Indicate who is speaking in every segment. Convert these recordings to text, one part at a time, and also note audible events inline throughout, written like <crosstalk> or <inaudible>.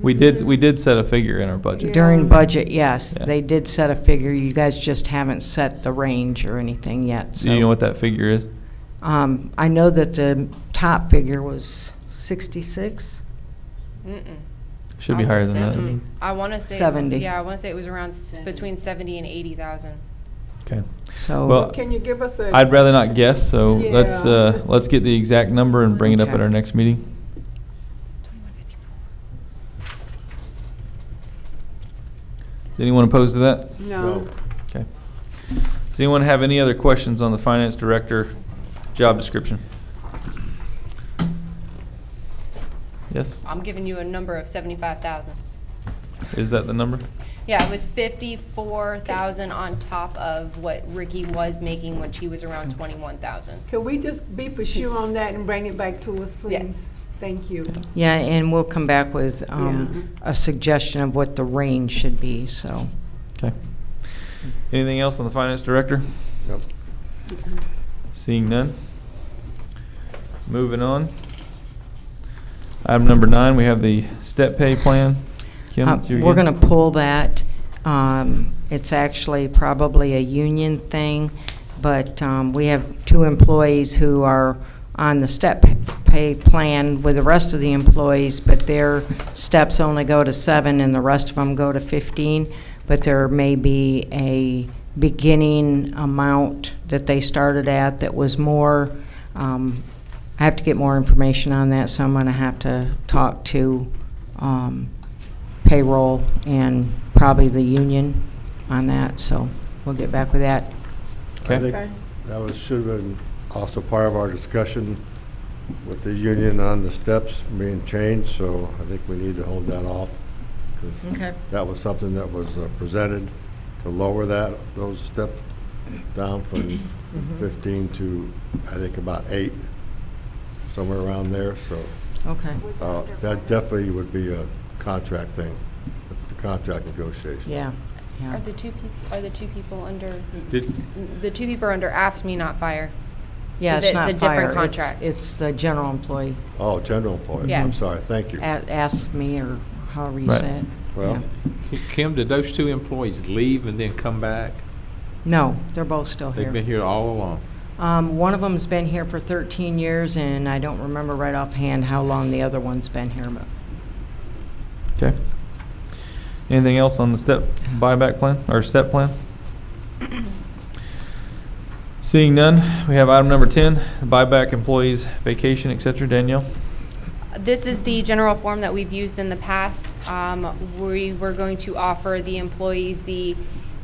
Speaker 1: We did, we did set a figure in our budget.
Speaker 2: During budget, yes,
Speaker 1: Yeah.
Speaker 2: they did set a figure, you guys just haven't set the range or anything yet, so.
Speaker 1: Do you know what that figure is?
Speaker 2: Um, I know that the top figure was sixty-six,
Speaker 3: Mm-mm.
Speaker 1: Should be higher than that.
Speaker 3: Mm-mm. I want to say.
Speaker 2: 70.
Speaker 3: Yeah, I want to say it was around, s- between 70 and 80,000.
Speaker 1: Okay.
Speaker 2: so.
Speaker 1: Well,
Speaker 4: Can you give us a?
Speaker 1: I'd rather not guess, so let's,
Speaker 4: Yeah.
Speaker 1: uh, let's get the exact number and bring it up at our next meeting. Is anyone opposed to that?
Speaker 4: No.
Speaker 1: Okay. Does anyone have any other questions on the finance director job description? Yes?
Speaker 3: I'm giving you a number of 75,000.
Speaker 1: Is that the number?
Speaker 3: Yeah, it was 54,000 on top of what Ricky was making when she was around 21,000.
Speaker 4: Can we just be for sure on that and bring it back to us, please? Thank you.
Speaker 2: Yeah, and we'll come back with, um, a suggestion of what the range should be, so.
Speaker 1: Okay. Anything else on the finance director?
Speaker 5: Nope.
Speaker 1: Seeing none. Moving on. Item number nine, we have the step pay plan. Kim,
Speaker 2: Uh,
Speaker 1: it's you
Speaker 2: We're
Speaker 1: again.
Speaker 2: going to pull that. Um, It's actually probably a union thing, but um, we have two employees who are on the step pay plan with the rest of the employees, but their steps only go to seven and the rest of them go to 15. But there may be a beginning amount that they started at that was more um, I have to get more information on that, so I'm gonna have to talk to, um, payroll and probably the union on that, so we'll get back with that.
Speaker 1: Okay.
Speaker 5: I think that was, should have been also part of our discussion with the union on the steps being changed, so I think we need to hold that off. 'cause
Speaker 2: Okay.
Speaker 5: That was something that was uh, presented to lower that, those steps down from fifteen to, I think, about eight, somewhere around there, so.
Speaker 2: Okay.
Speaker 5: uh, That definitely would be a contract thing, the contract negotiation.
Speaker 2: Yeah, yeah.
Speaker 3: Are the two people, are the two people under,
Speaker 1: Did-
Speaker 3: the two people are under AFSCME, E not fire?
Speaker 2: Yeah,
Speaker 3: So
Speaker 2: it's
Speaker 3: that's
Speaker 2: not
Speaker 3: a different
Speaker 2: fire, it's-
Speaker 3: contract.
Speaker 2: It's the general employee,
Speaker 5: Oh, general employee, I'm
Speaker 3: Yes.
Speaker 5: sorry, thank you.
Speaker 2: A- ask me or however you
Speaker 1: Right.
Speaker 2: say it.
Speaker 5: Well,
Speaker 2: Uh, Yeah.
Speaker 6: Kim, did those two employees leave and then come back?
Speaker 2: No, they're both still here.
Speaker 6: They've been here all along.
Speaker 2: Um, one of them's been here for thirteen years, and I don't remember right offhand how long the other one's been here, but
Speaker 1: Okay. Anything else on the step buyback plan, or step
Speaker 2: <coughs>
Speaker 1: plan? Seeing none, we have item number ten, buyback employees vacation, et cetera. Danielle?
Speaker 3: This is the general form that we've used in the past. Um, We were going to offer the employees the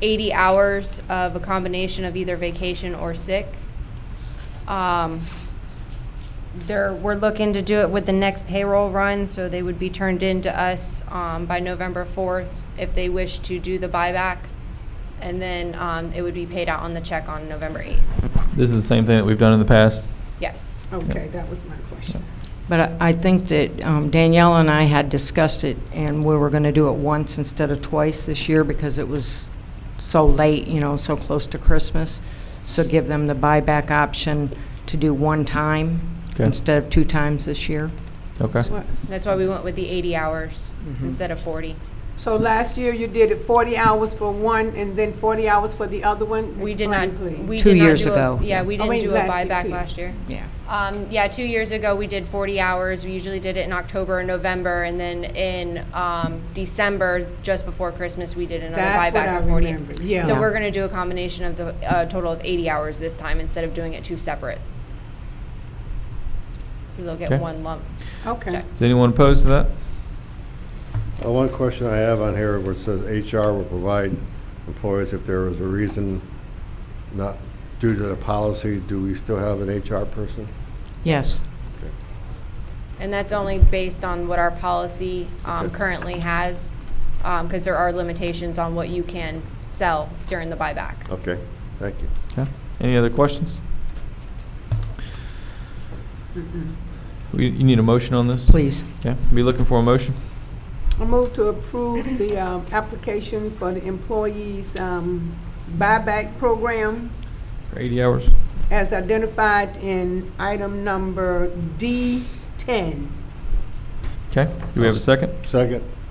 Speaker 3: 80 hours of a combination of either vacation or sick. Um, There, we're looking to do it with the next payroll run, so they would be turned in to us um, by November 4th if they wish to do the buyback. And then um, it would be paid out on the check on November 8th.
Speaker 1: This is the same thing that we've done in the past.
Speaker 3: Yes.
Speaker 4: Okay, that was my question.
Speaker 2: But I- I think that um, Danielle and I had discussed it, and we were going to do it once instead of twice this year because it was so late, you know, so close to Christmas. So give them the buyback option to do one time
Speaker 1: Okay.
Speaker 2: instead of two times this year.
Speaker 1: Okay.
Speaker 3: That's why we went with the 80 hours instead of 40.
Speaker 4: So last year you did it forty hours for one and then forty hours for the other one?
Speaker 3: We did
Speaker 4: Explain,
Speaker 3: not,
Speaker 4: please.
Speaker 3: we
Speaker 2: Two
Speaker 3: did not
Speaker 2: years
Speaker 3: do a-
Speaker 2: ago.
Speaker 3: Yeah, we
Speaker 4: Oh,
Speaker 3: didn't
Speaker 4: wait,
Speaker 3: do a
Speaker 4: last year,
Speaker 3: buyback
Speaker 4: two.
Speaker 3: last year.
Speaker 2: Yeah.
Speaker 3: Um, yeah, two years ago, we did 40 hours. We usually did it in October and November, and then in um, December, just before Christmas, we did another
Speaker 4: That's what
Speaker 3: buyback
Speaker 4: I
Speaker 3: of 40.
Speaker 4: remember, yeah.
Speaker 3: So
Speaker 2: Yeah.
Speaker 3: we're going to do a combination of the uh, total of 80 hours this time instead of doing it two separate. So they'll
Speaker 1: Okay.
Speaker 3: get one lump.
Speaker 4: Okay.
Speaker 1: Is anyone opposed to that?
Speaker 5: Uh, One question I have on here where it says HR will provide employees if there is a reason not due to the policy, do we still have an HR person?
Speaker 2: Yes.
Speaker 3: And that's only based on what our policy um,
Speaker 5: Okay.
Speaker 3: currently has, because there are limitations on what you can sell during the buyback.
Speaker 5: Okay, thank you.
Speaker 1: Okay. Any other questions? We, you need a motion on this?
Speaker 2: Please.
Speaker 1: Okay, be looking for a motion.
Speaker 4: I move to approve the um, application for the employees um, buyback program
Speaker 1: For eighty hours.
Speaker 4: as identified in item number D ten.
Speaker 1: Okay, do we have a second?
Speaker 5: Second?